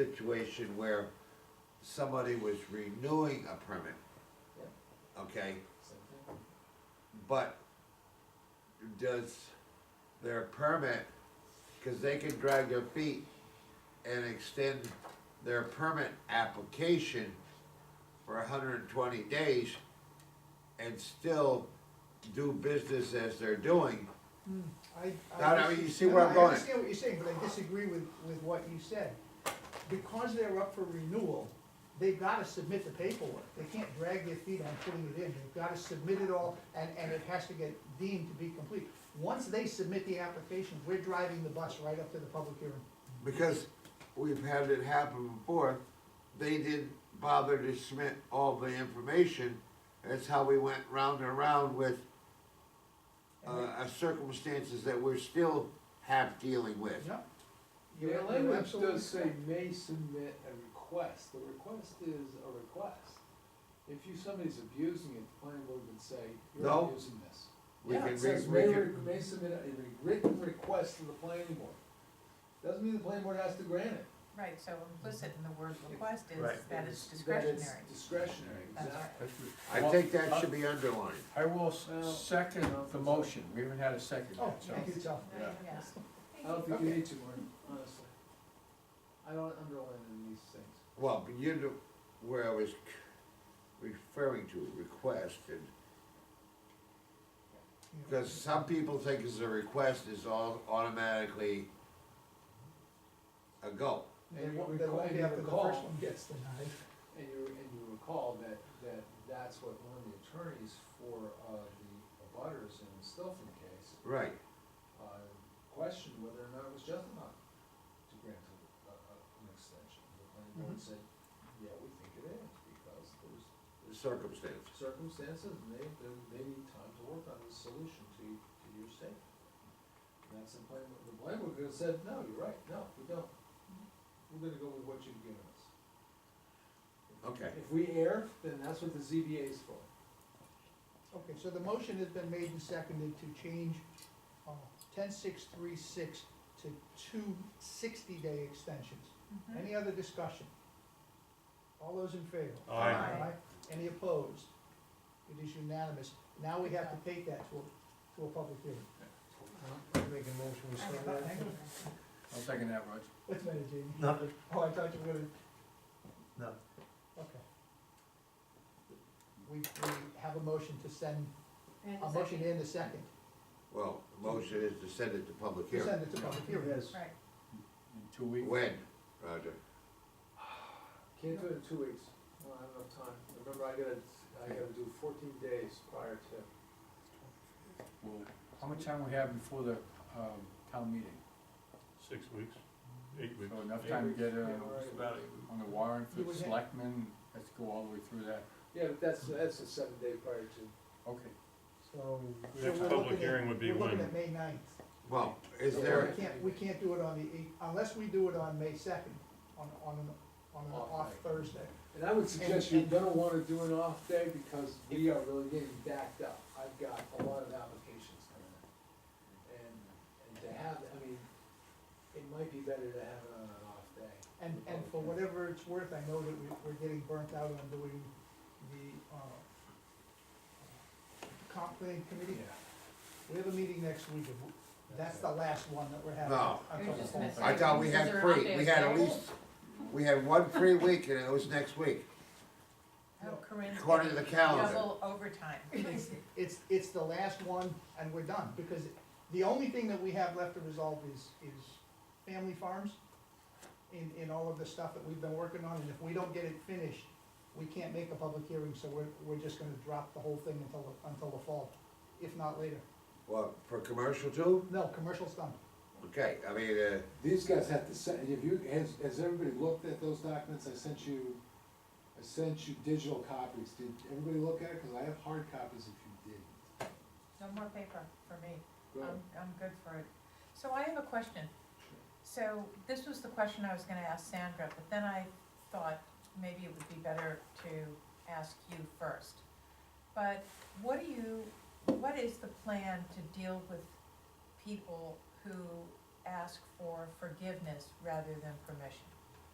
situation where somebody was renewing a permit. Okay, but does their permit, cause they can drag their feet and extend their permit application for hundred and twenty days and still do business as they're doing. I, No, I. no, dis- you see where I'm going. I understand what you're saying, but I disagree with, with what you said. Because they're up for renewal, they've gotta submit the paperwork. They can't drag their feet on putting it in. They've gotta submit it all, and, and it has to get deemed to be complete. Once they submit the application, we're driving the bus right up to the public hearing. Because we've had it happen before, they didn't bother to submit all the information. That's how we went round and round with uh, uh, circumstances that we're still half dealing with. Yeah, You're- Your you're language absolutely does say correct. may submit a request, the request is a request. If you, somebody's abusing it, the planning board would say, No. you're abusing this. We Yeah, can it says re- may, we re- can- may submit a re- written request to the planning board. Doesn't mean the planning board has to grant it. Right, so implicit in the word request is Right. that That it's it's discretionary. Discretionary, That's exactly. I think that should be underlined. I will s- Well- second the motion, we haven't had a second Oh, yet, so. thank you, Tom. Yeah. Yes. I don't think you Okay. need to, Marty, honestly. I don't underline any of these things. Well, but you know where I was c- referring to, request, and, because some people think it's a request is all automatically a go. They And you won't, they recall- won't and be you after the first recall, one gets denied. and you, and you recall that, that that's what one of the attorneys for, uh, the butters in the Stilton case, Right, uh, questioned whether or not it was justified to grant a, a, a- an extension. The planning board Mhm. said, yeah, we think it is, because there's, there's circumstance. circumstances, and they, they, they need time to work on the solution to, to your state. And that's the plan, the plan would have said, no, you're right, no, we don't. We're gonna go with what you've given us. Okay. If we err, then that's what the ZBA is for. Okay, so the motion has been made and seconded to change uh, ten six three six to two sixty-day extensions. Mhm. Any other discussion? All those in favor? Aye. Aye. Any opposed? It is unanimous. Now we have to take that to a, to a public hearing. Make a motion, we I start know, I that? know. I'll second that, Roger. What's the matter, Jamie? Nothing. Oh, I thought you were gonna. No. Okay. We, we have a motion to send, And a is motion that- and a second, Well, motion is to send it to public to hearing. send it to public hearing. Right, In two weeks. When, Roger? Can't do it in two weeks, I don't have enough time. Remember, I gotta, I gotta do fourteen days prior to. Well, How much time we have before the, um, town meeting? Six weeks, eight weeks. So enough time to get, Yeah, uh, right. About eight weeks. on the warrant for You the would have- selectmen, let's go all the way through that, Yeah, but that's, that's a seven day prior to. okay. So, So Next we're public looking at- hearing would be We're looking when? at May ninth. Well, is Yeah. there, We can't, we can't do it on the eighth, unless we do it on May second, on, on, an- on an Off off night. Thursday. And I would And- suggest you're and- gonna wanna do an off day because we are really getting backed up. I've got a lot of applications coming in. And, and to have, I mean, it might be better to have it on an off day. And, and for whatever it's worth, I know that we, we're getting burnt out on doing the, uh, comp plan committee. We have a meeting next week, and w- that's the last one that we're having. No. I'm You're talking just about- messing. I thought we Is had there an three, we update had at available? least, we had one free week and it was next week, Oh, Corinne's according to the getting calendar. double overtime. It's, it's, it's the last one, and we're done, because the only thing that we have left to resolve is, is family farms in, in all of the stuff that we've been working on, and if we don't get it finished, we can't make a public hearing, so we're, we're just gonna drop the whole thing until, until the fall, if not later. Well, for commercial too? No, commercial's done. Okay, I mean, uh, These guys have to send, have you, has, has everybody looked at those documents? I sent you, I sent you digital copies. Did everybody look at it? Cause I have hard copies if you didn't. No more paper for me. Go ahead. I'm, I'm good for it. So I have a question. So this was the question I was gonna ask Sandra, but then I thought maybe it would be better to ask you first. But what do you, what is the plan to deal with people who ask for forgiveness rather than permission?